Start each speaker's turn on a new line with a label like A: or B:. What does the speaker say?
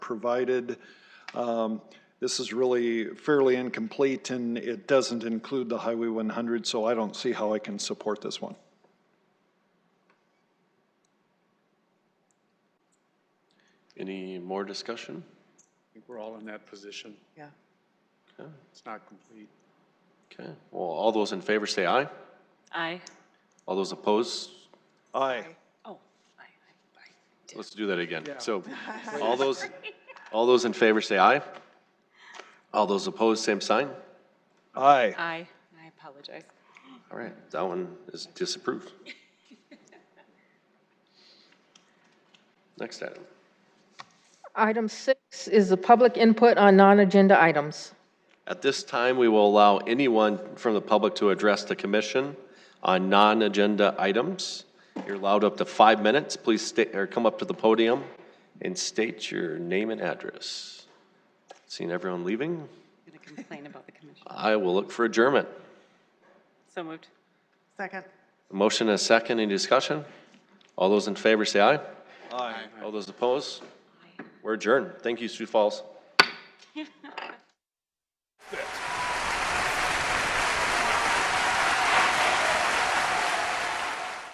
A: provided. Um, This is really fairly incomplete, and it doesn't include the Highway 100, so I don't see how I can support this one.
B: Any more discussion?
C: I think we're all in that position.
D: Yeah.
B: Okay,
C: It's not complete.
B: okay. Well, all those in favor say aye.
E: Aye.
B: All those opposed,
A: Aye.
E: Oh, aye, aye, aye.
B: let's do that again. So all those, all those in favor say aye. All those opposed, same sign.
A: Aye.
E: Aye. I apologize.
B: All right, that one is disapproved. Next item.
F: Item six is the public input on non-agenda items.
B: At this time, we will allow anyone from the public to address the commission on non-agenda items. You're allowed up to five minutes. Please state, or come up to the podium and state your name and address. Seeing everyone leaving,
E: I'm going to complain about the commission.
B: I will look for adjournment.
E: So moved.
D: Second.
B: A Motion and a second, any discussion? All those in favor say aye.
A: Aye.
B: All those opposed? We're adjourned. Thank you, Sioux Falls.